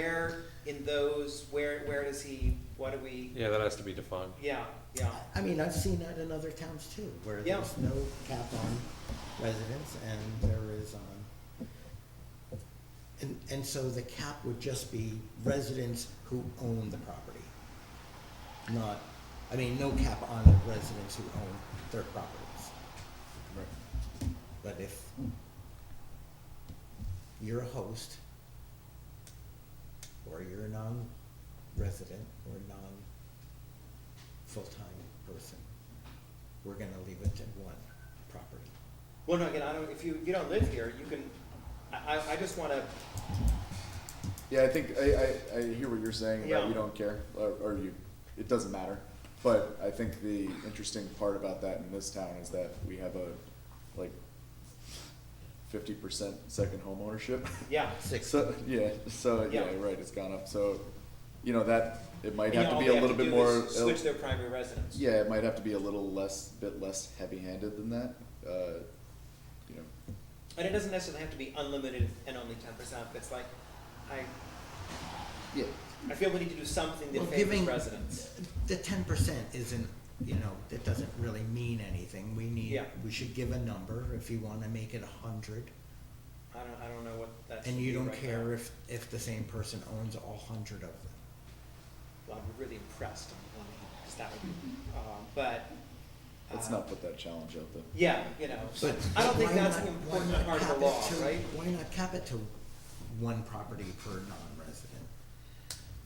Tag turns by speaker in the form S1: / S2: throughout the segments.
S1: Where in those, where, where does he, what do we,
S2: Yeah, that has to be defined.
S1: yeah, yeah,
S3: I mean, I've seen that in other towns too, where
S1: Yeah.
S3: there's no cap on residents and there is on. And, and so the cap would just be residents who own the property. Not, I mean, no cap on the residents who own their properties. But if you're a host, or you're a non-resident, or a non-full-time person, we're gonna leave it at one property.
S1: well, no, again, I don't, if you, you don't live here, you can, I, I, I just wanna,
S4: Yeah, I think I, I, I hear what you're saying about
S1: Yeah.
S4: you don't care or, or you it doesn't matter. But I think the interesting part about that in this town is that we have a like fifty percent second home ownership.
S1: yeah.
S3: Six.
S4: So yeah, so yeah,
S1: Yeah.
S4: right, it's gone up. So you know that it might
S1: You know,
S4: have to
S1: all
S4: be
S1: they
S4: a little
S1: do
S4: bit
S1: is
S4: more uh,
S1: Switch their primary residence.
S4: yeah, it might have to be a little less bit less heavy handed than that. Uh, you know,
S1: And it doesn't necessarily have to be unlimited and only ten percent, it's like, I,
S4: yeah.
S1: I feel we need to do something that
S3: Well,
S1: favors
S3: giving-
S1: residents.
S3: The ten percent isn't, you know, that doesn't really mean anything, we need,
S1: Yeah.
S3: we should give a number, if you wanna make it a hundred.
S1: I don't, I don't know what that should
S3: And
S1: be
S3: you don't
S1: right now.
S3: care if, if the same person owns all hundred of them.
S1: Well, I'm really impressed on the one hand, 'cause that would, be- um, but.
S4: Let's
S1: uh,
S4: not put that challenge out there.
S1: Yeah, you know,
S3: But
S1: I don't think
S3: why
S1: that's
S3: not-
S1: an
S3: why
S1: important
S3: not
S1: part of the
S3: cap it
S1: law,
S3: to-
S1: right?
S3: Why not cap it to one property per non-resident?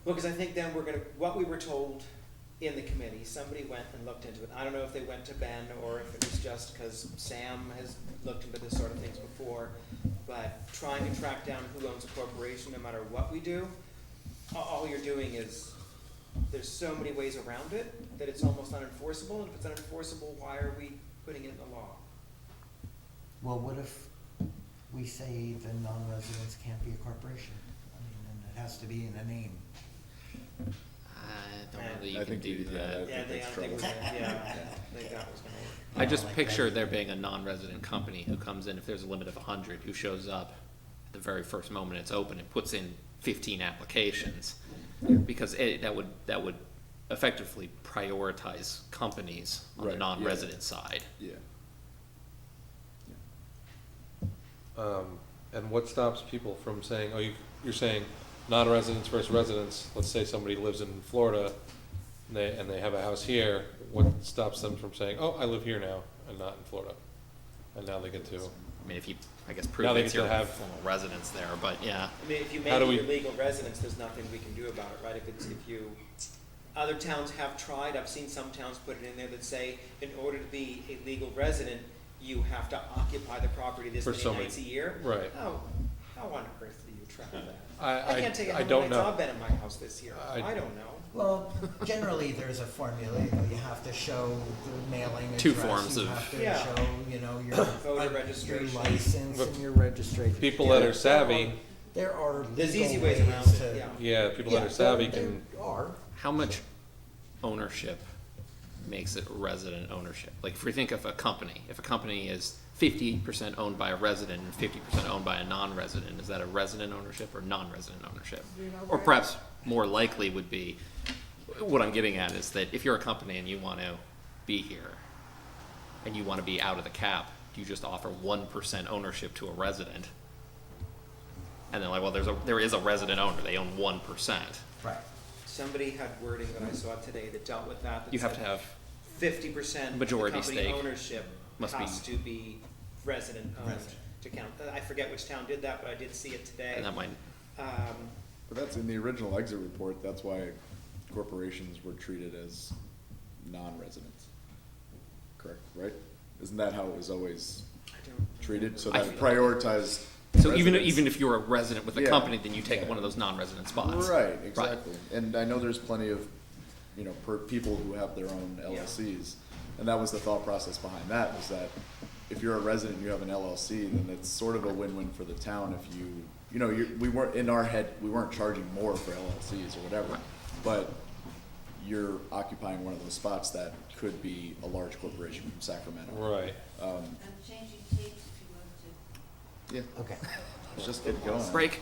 S1: Well, because I think then we're gonna, what we were told in the committee, somebody went and looked into it. I don't know if they went to Ben or if it was just because Sam has looked into this sort of things before. But trying to track down who owns a corporation, no matter what we do, a- all you're doing is, there's so many ways around it that it's almost unenforceable. And if it's unenforceable, why are we putting it in the law?
S3: Well, what if we say the non-residents can't be a corporation? I mean, and it has to be in a name.
S5: I
S1: Yeah.
S5: don't believe
S4: I
S5: you can
S4: think
S5: do
S4: you- yeah,
S5: that.
S1: Yeah,
S4: think
S1: they, I
S4: that's
S1: don't think we're,
S4: trouble.
S1: gonna- yeah, I think that was gonna work.
S5: I
S3: Yeah,
S5: just
S3: like that.
S5: picture there being a non-resident company who comes in, if there's a limit of hundred, who shows up at the very first moment it's open and puts in fifteen applications. Because it, that would, that would effectively prioritize companies on
S4: Right,
S5: the
S4: yeah.
S5: non-resident side.
S4: Yeah. Yeah.
S2: Um, and what stops people from saying, oh, you, you're saying non-residents versus residents, let's say somebody lives in Florida and they, and they have a house here, what stops them from saying, oh, I live here now and not in Florida? And now they get to,
S5: I mean, if you, I guess
S2: Now
S5: prove
S2: they
S5: it's
S2: get to
S5: your
S2: have-
S5: formal residence there, but yeah.
S1: I mean, if you make
S2: How
S1: it
S2: do
S1: your
S2: we-
S1: legal residence, there's nothing we can do about it, right? If it's, if you, other towns have tried, I've seen some towns put it in there that say, in order to be a legal resident, you have to occupy the property this
S2: For so
S1: many
S2: many-
S1: nights a year.
S2: right. Hmm.
S1: How, how on earth do you track that?
S2: I,
S1: I can't tell you
S2: I,
S1: how
S2: I
S1: many
S2: don't
S1: nights I've
S2: know.
S1: been in my house this year.
S2: I-
S1: I don't know.
S3: Well, generally, there's a formula, you know, you have to show the mailing address.
S5: Two forms
S3: you
S5: of-
S3: have to
S1: Yeah.
S3: show, you know, your.
S1: Voter
S3: your
S1: registration.
S3: license
S2: But
S3: and your registration.
S2: People that
S3: Yeah.
S2: are savvy,
S3: There are
S1: There's
S3: legal
S1: easy ways around
S3: ways
S1: it,
S3: to-
S1: yeah.
S2: yeah, people that
S3: Yeah,
S2: are savvy
S3: there-
S2: can,
S3: There are,
S5: How much ownership makes it resident ownership? Like, if we think of a company, if a company is fifty percent owned by a resident and fifty percent owned by a non-resident, is that a resident ownership or non-resident ownership? Or perhaps more likely would be, what I'm getting at is that if you're a company and you want to be here, and you want to be out of the cap, you just offer one percent ownership to a resident. And they're like, well, there's a, there is a resident owner, they own one percent.
S3: right.
S1: Somebody had wording that I saw today that dealt with that. that
S5: You have to
S1: said
S5: have
S1: fifty percent
S5: Majority
S1: company
S5: stake
S1: ownership
S5: must be-
S1: has to be resident owned
S3: Resident.
S1: to count. Uh, I forget which town did that, but I did see it today.
S5: And that might,
S1: Um,
S4: But that's in the original exit report, that's why corporations were treated as non-residents. Correct, right? Isn't that how it was always
S1: I don't.
S4: treated? So
S5: I-
S4: that prioritized
S5: so even,
S4: residents.
S5: even if you're a resident with a
S4: Yeah.
S5: company, then you take
S4: Yeah.
S5: one of those non-resident spots.
S4: Right, exactly. And I know there's plenty of, you know, per, people who have their own
S1: Yeah.
S4: LLCs. And that was the thought process behind that, was that if you're a resident, and you have an LLC, then it's sort of a win-win for the town if you, you know, you, we weren't, in our head, we weren't charging more for LLCs or whatever. But you're occupying one of those spots that could be a large corporation from Sacramento.
S2: right.
S4: Um,
S6: I'm changing tapes if you want to.
S4: yeah,
S3: Okay.
S4: let's just get going.
S5: Break.